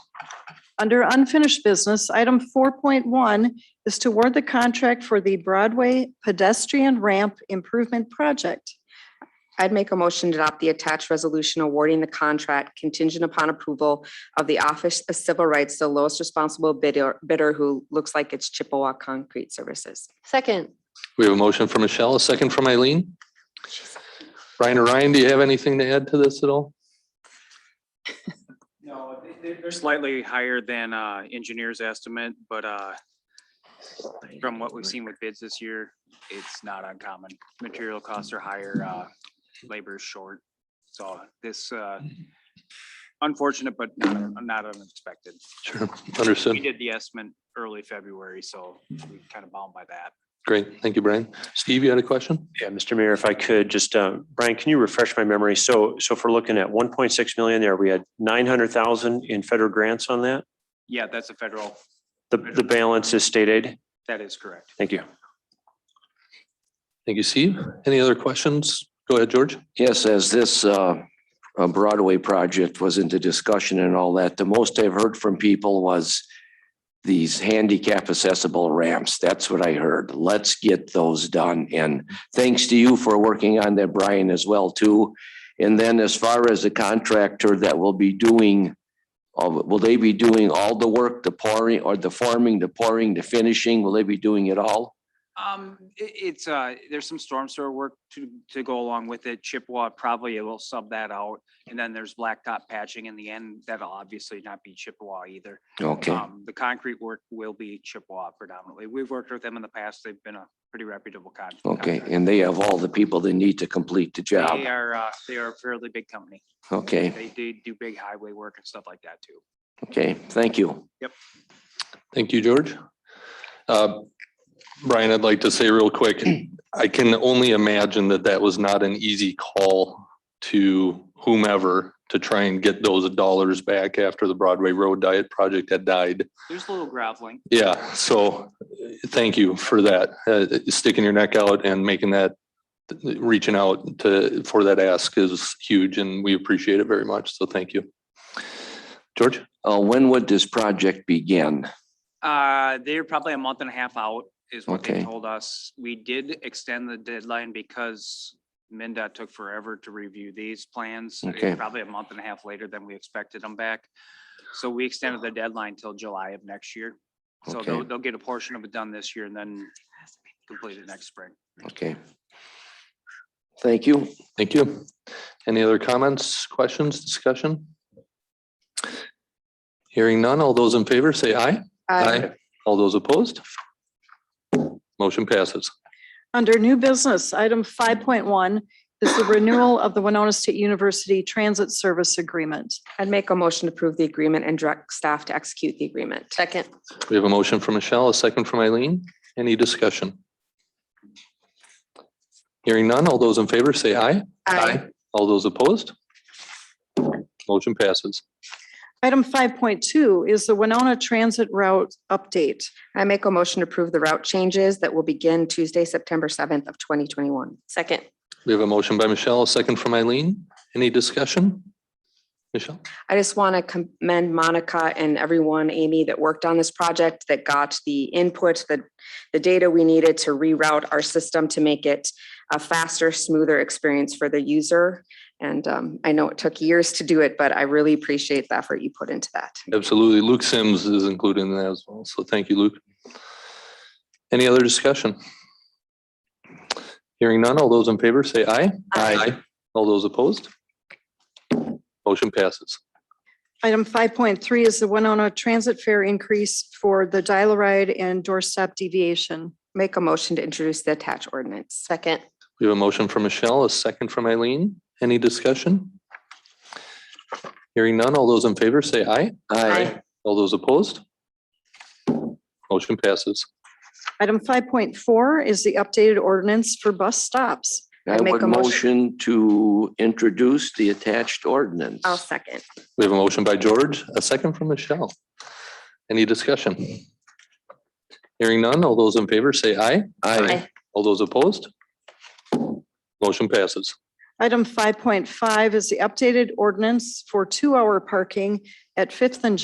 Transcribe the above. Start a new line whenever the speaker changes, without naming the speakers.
Under unfinished business, item four point one is to award the contract for the Broadway pedestrian ramp improvement project.
I'd make a motion to adopt the attached resolution awarding the contract contingent upon approval of the Office of Civil Rights, to the lowest responsible bidder, bidder who looks like it's Chippewa Concrete Services.
Second,
We have a motion from Michelle, a second from Eileen. Brian or Ryan, do you have anything to add to this at all?
No, they- they- they're slightly higher than uh, engineer's estimate, but uh, from what we've seen with bids this year, it's not uncommon. Material costs are higher, uh, labor is short. So this uh, unfortunate, but not not unexpected.
Sure,
We
understood.
did the estimate early February, so we kind of bound by that.
Great, thank you, Brian. Steve, you had a question?
Yeah, Mr. Mayor, if I could, just, uh, Brian, can you refresh my memory? So, so if we're looking at one point six million there, we had nine hundred thousand in federal grants on that?
Yeah, that's a federal,
The, the balance is state aid?
that is correct.
Thank you.
Thank you, Steve. Any other questions? Go ahead, George.
Yes, as this uh, uh, Broadway project was into discussion and all that, the most I've heard from people was these handicap accessible ramps. That's what I heard. Let's get those done. And thanks to you for working on that, Brian, as well, too. And then as far as the contractor that will be doing, uh, will they be doing all the work, the pouring or the forming, the pouring, the finishing? Will they be doing it all?
Um, it, it's, uh, there's some storm sewer work to, to go along with it. Chippewa probably will sub that out. And then there's blacktop patching in the end. That'll obviously not be Chippewa either.
Okay.
Um, the concrete work will be Chippewa predominantly. We've worked with them in the past. They've been a pretty reputable con-
Okay,
contractor.
and they have all the people they need to complete the job.
They are, uh, they are a fairly big company.
Okay,
They do, do big highway work and stuff like that too.
okay, thank you.
Thank you, George. Uh, Brian, I'd like to say real quick, I can only imagine that that was not an easy call to whomever to try and get those dollars back after the Broadway Road Diet project had died.
There's a little groveling.
Yeah, so uh, thank you for that, uh, sticking your neck out and making that, reaching out to, for that ask is huge and we appreciate it very much. So thank you. George?
Uh, when would this project begin?
Uh, they're probably a month and a half out is what they
Okay.
told us. We did extend the deadline because MinDOT took forever to review these plans. It's
Okay.
Probably a month and a half later than we expected them back. So we extended the deadline till July of next year. So they'll,
Okay.
they'll get a portion of it done this year and then complete it next spring.
Okay. Thank you.
Thank you. Any other comments, questions, discussion? Hearing none, all those in favor say aye. All those opposed? Motion passes.
Under new business, item five point one is the renewal of the Winona State University Transit Service Agreement.
I'd make a motion to approve the agreement and direct staff to execute the agreement.
second,
We have a motion from Michelle, a second from Eileen. Any discussion? Hearing none, all those in favor say aye. All those opposed? Motion passes.
Item five point two is the Winona Transit Route Update.
I make a motion to approve the route changes that will begin Tuesday, September seventh of twenty twenty-one.
second.
We have a motion by Michelle, a second from Eileen. Any discussion? Michelle?
I just want to commend Monica and everyone, Amy, that worked on this project, that got the input, the, the data we needed to reroute our system to make it a faster, smoother experience for the user. And um, I know it took years to do it, but I really appreciate the effort you put into that.
Absolutely. Luke Sims is included in that as well. So thank you, Luke. Any other discussion? Hearing none, all those in favor say aye. Aye. All those opposed? Motion passes.
Item five point three is the Winona Transit Fare Increase for the dial ride and doorstop deviation.
Make a motion to introduce the attached ordinance.
Second,
We have a motion from Michelle, a second from Eileen. Any discussion? Hearing none, all those in favor say aye.
Aye.
All those opposed? Motion passes.
Item five point four is the updated ordinance for bus stops.
I
I make
would
a motion-
motion to introduce the attached ordinance.
I'll second.
We have a motion by George, a second from Michelle. Any discussion? Hearing none, all those in favor say aye.
Aye.
All those opposed? Motion passes.
Item five point five is the updated ordinance for two-hour parking at Fifth and